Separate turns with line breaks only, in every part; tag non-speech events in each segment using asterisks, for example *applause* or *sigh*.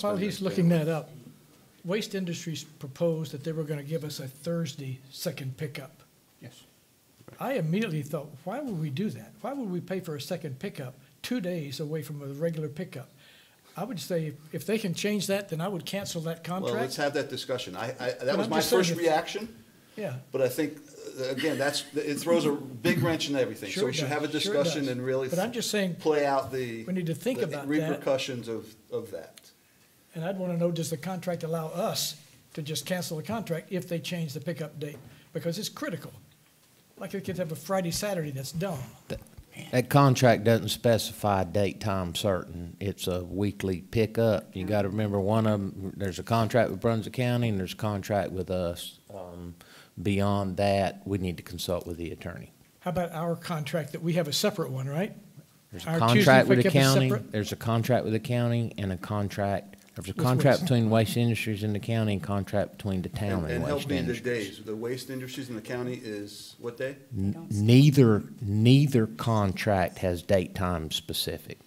While he's looking that up, Waste Industries proposed that they were going to give us a Thursday second pickup.
Yes.
I immediately thought, why would we do that? Why would we pay for a second pickup two days away from a regular pickup? I would say if they can change that, then I would cancel that
Well, let's
contract.
have that discussion. I, I,
But
that was
I'm
my
just saying
first
if-
reaction,
Yeah,
but I think, uh, again, that's, it throws a big wrench in everything. So
Sure
we
it
should
does,
have a
sure it
discussion
does.
and really.
But I'm just saying,
Play out the.
we need to think
the
about that.
Repercussions of, of that.
and I'd want to know, does the contract allow us to just cancel the contract if they change the pickup date? Because it's critical. Like they could have a Friday, Saturday, that's dumb.
That- That contract doesn't specify date, time certain. It's a weekly pickup.
Mm-hmm.
You gotta remember, one of them, there's a contract with Brunswick County and there's a contract with us. Um, Beyond that, we need to consult with the attorney.
How about our contract that we have a separate one, right?
There's
Our
a
Tuesday
contract with the
pickup is
county,
separate?
there's a contract with the county and a contract, there's a
With
contract
Waste.
between Waste Industries and the county and contract between the
And
town
and
and
help
Waste
me the
Industries.
days. The waste industries in the county is what day?
N- Neither, neither contract has date, time specific.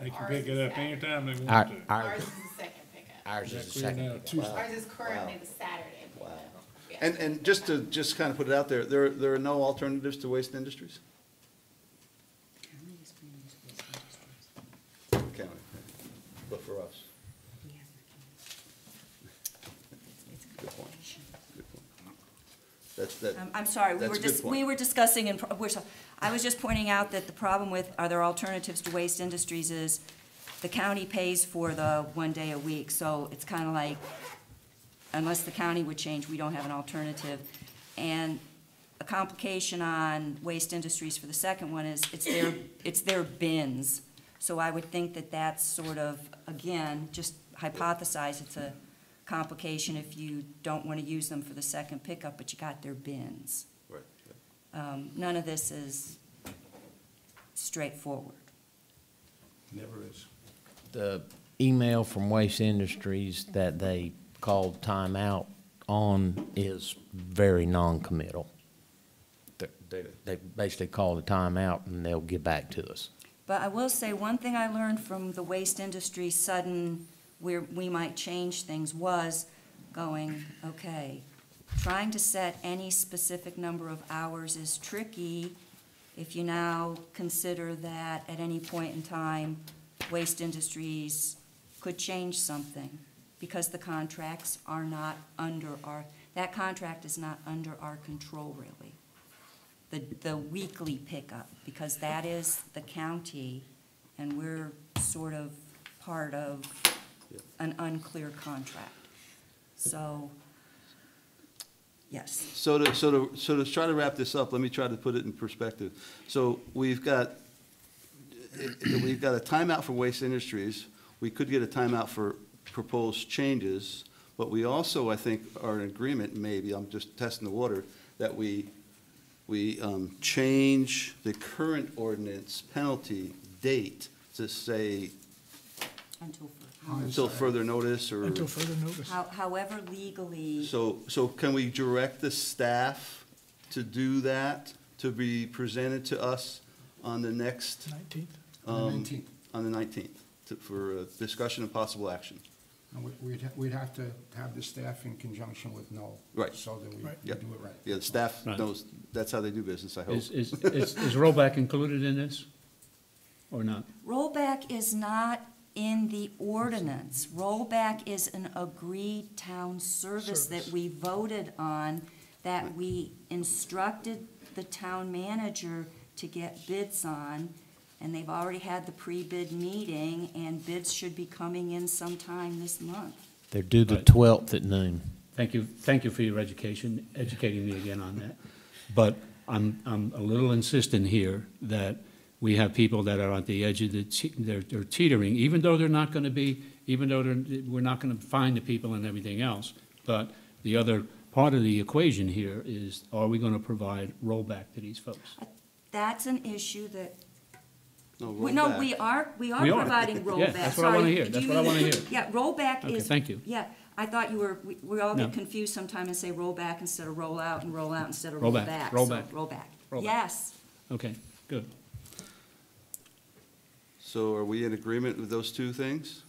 They can pick it up anytime they
Our,
want to.
our,
Ours is the
ours is
second pickup.
the
Clear
second.
now, Tuesday.
Ours is currently the Saturday pickup. Yeah.
And, and just to, just kind of put it out there, there, there are no alternatives to waste industries? County, but for us. Good point. Good point. That's, that.
Um, I'm sorry, we
that's
were
a good
just,
point.
we were discussing, and pro- we're, so- I was just pointing out that the problem with, are there alternatives to Waste Industries is the county pays for the one day a week, so it's kind of like, unless the county would change, we don't have an alternative. And a complication on Waste Industries for the second one is,
*clears throat*
it's their, it's their bins. So I would think that that's sort of, again, just hypothesize, it's a complication if you don't want to use them for the second pickup, but you got their bins.
Right.
Um, None of this is straightforward.
Never is.
the email from Waste Industries that they called timeout on is very non-committal. They- They, they basically called a timeout and they'll get back to us.
But I will say, one thing I learned from the waste industry sudden, where we might change things, was going, okay, trying to set any specific number of hours is tricky if you now consider that at any point in time, waste industries could change something, because the contracts are not under our, that contract is not under our control, really the, the weekly pickup, because that is the county, and we're sort of part of an unclear contract. So, yes.
So to, so to, so to try to wrap this up, let me try to put it in perspective. So we've got, we've got a timeout for Waste Industries. We could get a timeout for proposed changes, but we also, I think, are in agreement, maybe, I'm just testing the water, that we, we um, change the current ordinance penalty date to say
Until
until further notice or.
Until further notice.
How, however legally,
So, so can we direct the staff to do that, to be presented to us on the next,
19th?
um,
19th.
on the nineteenth, for uh, discussion and possible action?
And we- we'd, ha- we'd have to have the staff in conjunction with Noel.
Right.
So that we
Right.
we
Yeah.
do it right.
Yeah, the staff
Right.
knows, that's how they do business, I hope.
Is, is, is is rollback included in this or not?
rollback is not in the ordinance. Rollback is an agreed town service that
Service.
we voted on, that we instructed the town manager to get bids on, and they've already had the pre-bid meeting, and bids should be coming in sometime this month.
They're due the
Right.
12th at noon.
Thank you, thank you for your education, educating me again on that. But I'm, I'm a little insistent here that we have people that are at the edge of the, te- they're, they're teetering, even though they're not gonna be, even though they're, we're not gonna find the people and everything else. But the other part of the equation here is, are we gonna provide rollback to these folks?
That's an issue that
roll
We- No,
back.
we are, we are
We are.
providing
*laughs* Yeah,
rollback.
that's what I wanna
Sorry,
hear.
do
That's
you
what I
mean-
wanna hear.
*laughs* Yeah, rollback
Okay,
is.
thank you.
Yeah, I thought you were, we- we all
No.
get confused sometimes and say rollback instead of rollout and rollout instead of rollback.
Rollback, rollback,
So rollback.
rollback.
Yes,
Okay, good.
So are we in agreement with those two things?